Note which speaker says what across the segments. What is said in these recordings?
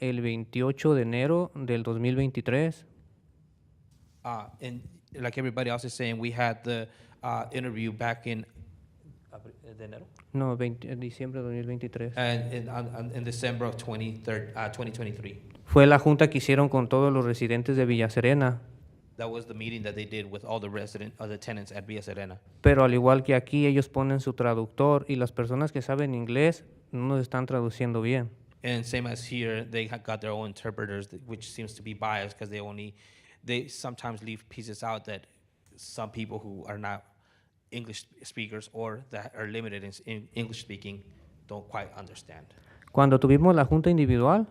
Speaker 1: el 28 de enero del 2023.
Speaker 2: Uh, and like everybody else is saying, we had the uh, interview back in
Speaker 1: No, 20 en diciembre de 2023.
Speaker 2: and in, on, on, in December of 23rd, uh, 2023.
Speaker 1: Fue la junta que hicieron con todos los residentes de Villa Serena.
Speaker 2: That was the meeting that they did with all the resident, uh, the tenants at Villa Serena.
Speaker 1: Pero al igual que aquí, ellos ponen su traductor y las personas que saben inglés no nos están traduciendo bien.
Speaker 2: And same as here, they ha- got their own interpreters, th- which seems to be biased because they only, they sometimes leave pieces out that some people who are not English speakers or that are limited in, s- in English speaking don't quite understand.
Speaker 1: Cuando tuvimos la junta individual,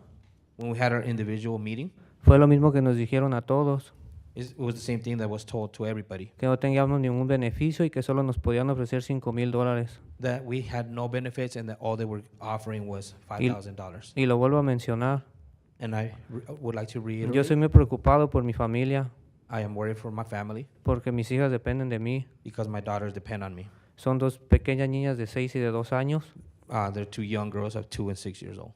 Speaker 2: When we had our individual meeting,
Speaker 1: fue lo mismo que nos dijeron a todos,
Speaker 2: is- it was the same thing that was told to everybody
Speaker 1: que no teníamos ningún beneficio y que solo nos podían ofrecer 5 mil dólares.
Speaker 2: that we had no benefits and that all they were offering was $5,000.
Speaker 1: Y lo vuelvo a mencionar,
Speaker 2: And I re- would like to
Speaker 1: yo
Speaker 2: reiterate
Speaker 1: soy muy preocupado por mi familia,
Speaker 2: I am worried for my family
Speaker 1: porque mis hijas dependen de mí.
Speaker 2: because my daughters depend on me.
Speaker 1: Son dos pequeñas niñas de 6 y de 2 años
Speaker 2: Uh, they're two young girls of two and six years old.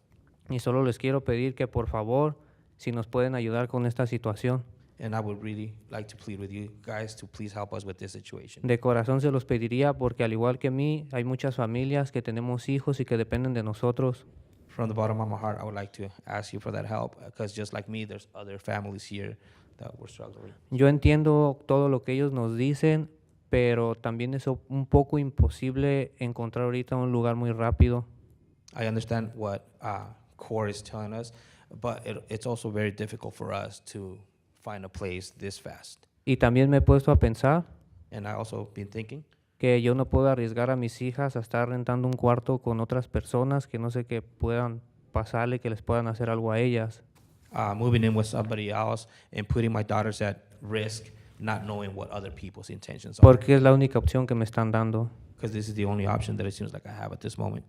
Speaker 1: y solo les quiero pedir que por favor, si nos pueden ayudar con esta situación.
Speaker 2: And I would really like to plead with you guys to please help us with this situation.
Speaker 1: De corazón se los pediría porque al igual que mí, hay muchas familias que tenemos hijos y que dependen de nosotros.
Speaker 2: From the bottom of my heart, I would like to ask you for that help because just like me, there's other families here that were struggling.
Speaker 1: Yo entiendo todo lo que ellos nos dicen, pero también es o- un poco imposible encontrar ahorita un lugar muy rápido.
Speaker 2: I understand what uh, CORE is telling us, but it, it's also very difficult for us to find a place this fast.
Speaker 1: Y también me he puesto a pensar
Speaker 2: And I also been thinking
Speaker 1: que yo no puedo arriesgar a mis hijas a estar rentando un cuarto con otras personas que no sé qué puedan pasarle, que les puedan hacer algo a ellas.
Speaker 2: uh, moving in with somebody else and putting my daughters at risk, not knowing what other people's intentions are.
Speaker 1: Porque es la única opción que me están dando.
Speaker 2: Because this is the only option that it seems like I have at this moment.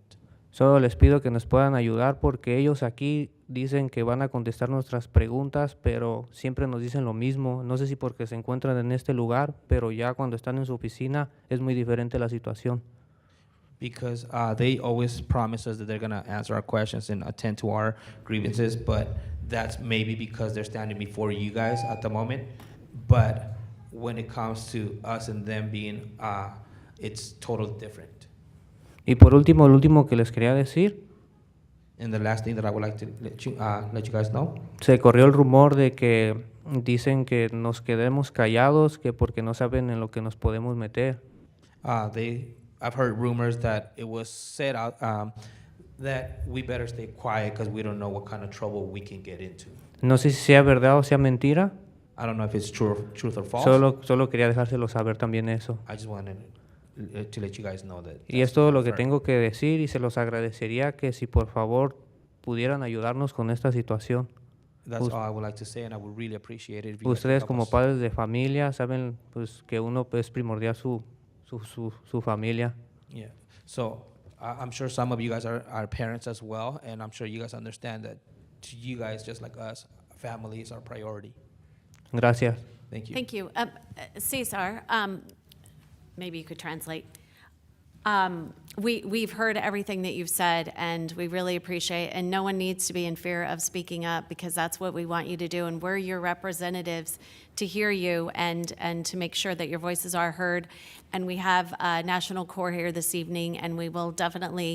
Speaker 1: Solo les pido que nos puedan ayudar porque ellos aquí dicen que van a contestar nuestras preguntas, pero siempre nos dicen lo mismo. No sé si porque se encuentran en este lugar, pero ya cuando están en su oficina es muy diferente la situación.
Speaker 2: Because uh, they always promise us that they're going to answer our questions and attend to our grievances, but that's maybe because they're standing before you guys at the moment. But when it comes to us and them being, uh, it's totally different.
Speaker 1: Y por último, lo último que les quería decir,
Speaker 2: And the last thing that I would like to let you, uh, let you guys know
Speaker 1: se corrió el rumor de que dicen que nos quedemos callados, que porque no saben en lo que nos podemos meter.
Speaker 2: Uh, they, I've heard rumors that it was said out um, that we better stay quiet because we don't know what kind of trouble we can get into.
Speaker 1: No sé si sea verdad o sea mentira,
Speaker 2: I don't know if it's true, truth or false.
Speaker 1: solo, solo quería dejárselo saber también eso.
Speaker 2: I just wanted uh, to let you guys know that.
Speaker 1: Y
Speaker 2: that's
Speaker 1: es todo lo que
Speaker 2: correct.
Speaker 1: tengo que decir y se los agradecería que si por favor pudieran ayudarnos con esta situación.
Speaker 2: That's all I would like to say, and I would really appreciate it. If you guys could
Speaker 1: Ustedes
Speaker 2: help
Speaker 1: como
Speaker 2: us.
Speaker 1: padres de familia saben pues que uno es primordial su, su, su, su familia.
Speaker 2: Yeah. So I I'm sure some of you guys are, are parents as well, and I'm sure you guys understand that to you guys, just like us, family is our priority.
Speaker 1: Gracias.
Speaker 2: Thank you.
Speaker 3: Thank you. Um, uh, Cesar, um, maybe you could translate. Um, We, we've heard everything that you've said, and we really appreciate, and no one needs to be in fear of speaking up, because that's what we want you to do, and we're your representatives to hear you and, and to make sure that your voices are heard. And we have uh, National Corps here this evening, and we will definitely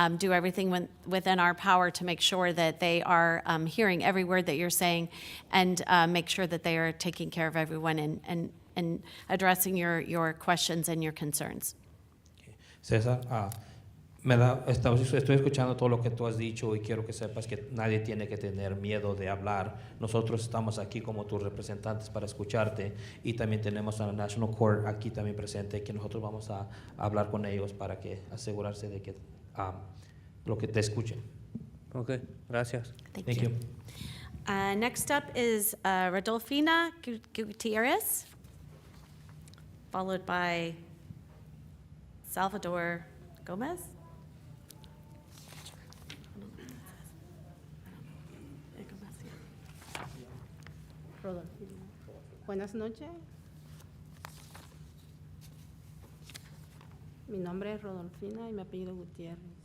Speaker 3: um, do everything when- within our power to make sure that they are um, hearing every word that you're saying, and uh, make sure that they are taking care of everyone and, and, and addressing your, your questions and your concerns.
Speaker 2: César, ah, me da, esta- estoy escuchando todo lo que tú has dicho y quiero que sepas que nadie tiene que tener miedo de hablar. Nosotros estamos aquí como tus representantes para escucharte y también tenemos a la National Court aquí también presente que nosotros vamos a, hablar con ellos para que asegurarse de que ah, lo que te escuchen.
Speaker 1: Ok, gracias.
Speaker 3: Thank,
Speaker 2: Thank you.
Speaker 3: Uh, next up is uh, Rodolfina Gu- Gutierrez, followed by Salvador Gomez.
Speaker 4: Rodolfina. Buenas noches. Mi nombre es Rodolfina y mi apellido Gutiérrez.